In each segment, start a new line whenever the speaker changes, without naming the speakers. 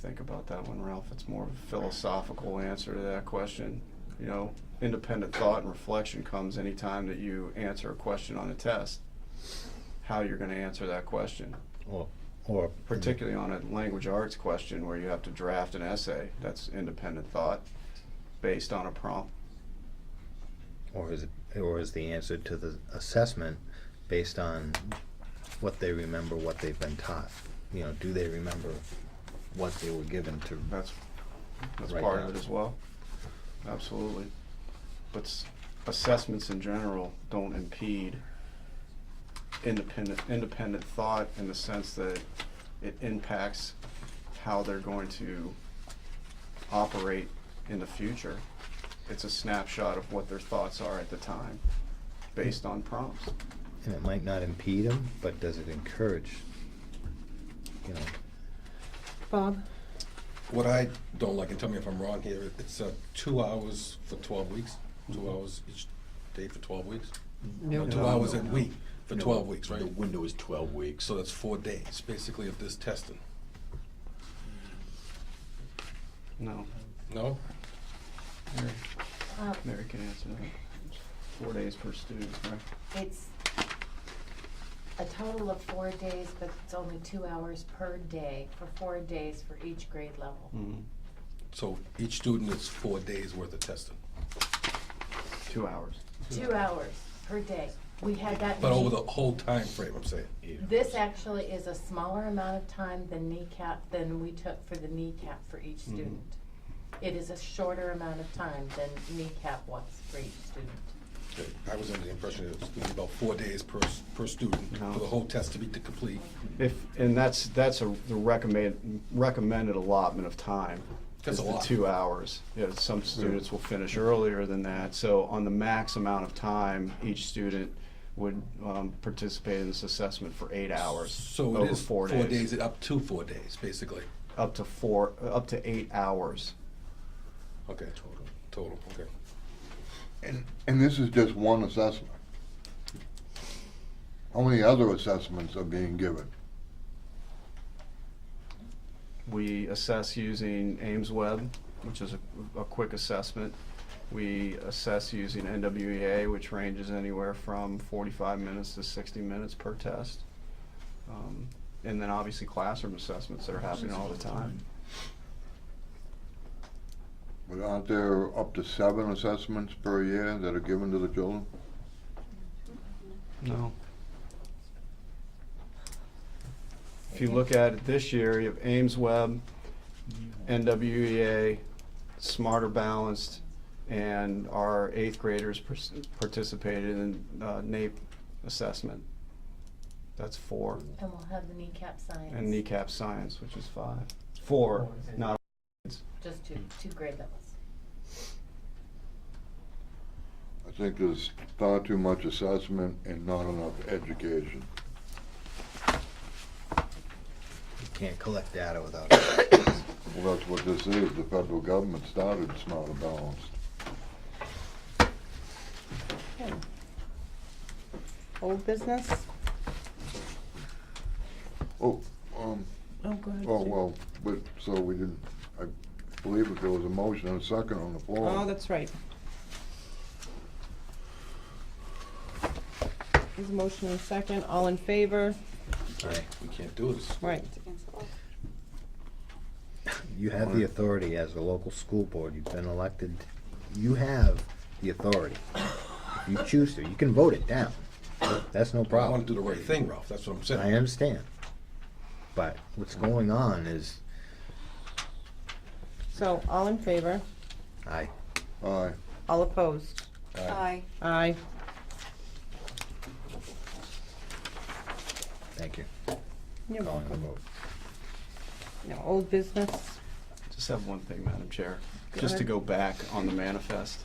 think about that one, Ralph. It's more of a philosophical answer to that question. You know, independent thought and reflection comes anytime that you answer a question on a test. How you're going to answer that question,
Or, or.
particularly on a language arts question where you have to draft an essay. That's independent thought based on a prompt.
Or is, it- or is the answer to the assessment based on what they remember, what they've been taught? You know, do they remember what they were given to?
That's, that's
Right
part
now.
of it as well. Absolutely. But s- assessments in general don't impede independent, independent thought in the sense that it impacts how they're going to operate in the future. It's a snapshot of what their thoughts are at the time, based on prompts.
And it might not impede them, but does it encourage, you know?
Bob?
What I don't like, and tell me if I'm wrong here, it's uh, two hours for 12 weeks, two hours each day for 12 weeks? No, two
No,
hours
no,
a week for 12 weeks, right?
The window is twelve weeks.
So that's four days, basically, of this testing.
No,
No?
Mary,
Um,
Mary can answer that. Four days per student, right?
It's a total of four days, but it's only two hours per day for four days for each grade level.
Mm-hmm.
Mhm.
So each student is four days worth of testing.
Two hours.
Two hours per day. We had that.
But over the
knee-
whole time frame, I'm saying.
This actually is a smaller amount of time than kneecap, than we took for the kneecap for each student. It is a shorter amount of time than kneecap was for each student.
Okay, I was under the impression it was gonna be about four days per, s- per student
No.
for the whole test to be to complete.
If, and that's, that's a, the recommend, recommended allotment of time.
That's
is
a
the
lot.
Two hours. Yeah, some students will finish earlier than that, so on the max amount of time, each student would, um, participate in this assessment for eight hours,
So it
over
is
four
four
days.
days, up to four days, basically.
up to four, up to eight hours.
Okay. Total. Total, okay.
And, and this is just one assessment. How many other assessments are being given?
We assess using Ames Web, which is a, a quick assessment. We assess using NWEA, which ranges anywhere from 45 minutes to 60 minutes per test. Um, and then obviously classroom assessments that are happening all the time.
But aren't there up to seven assessments per year that are given to the children?
No. If you look at it this year, you have Ames Web, NWEA, E Smarter Balanced, and our eighth graders pers- participated in uh, NAEP assessment. That's four.
And we'll have the kneecap science.
And E kneecap science, which is five. Four, not,
Just two, two grade levels.
I think there's far too much assessment and not enough education.
You can't collect data without
Well, that's what this is. The federal government started Smarter Balanced.
Old business?
Oh, um,
Oh, go ahead.
oh, well, but, so we didn't, I believe if there was a motion and a second on the floor.
Oh, that's right. There's a motion and a second, all in favor?
Aye.
We can't do this.
Right.
You have the authority as a local school board, you've been elected, you have the authority. If you choose to, you can vote it down, that's no
I want
problem,
to do the right thing, Ralph, that's what I'm
I
saying.
understand. But what's going on is,
So, all in favor,
I,
Aye.
all opposed?
Aye.
Aye.
thank you.
You're
Calling the
welcome.
vote.
Now, old business,
just have one thing, Madam Chair,
Go
just to
ahead.
go back on the manifest.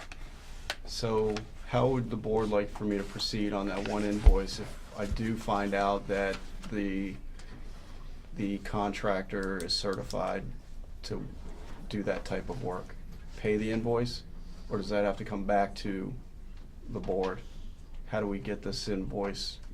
So how would the board like for me to proceed on that one invoice if I do find out that the, the contractor is certified to do that type of work? Pay the invoice, or does that have to come back to the board? How do we get this invoice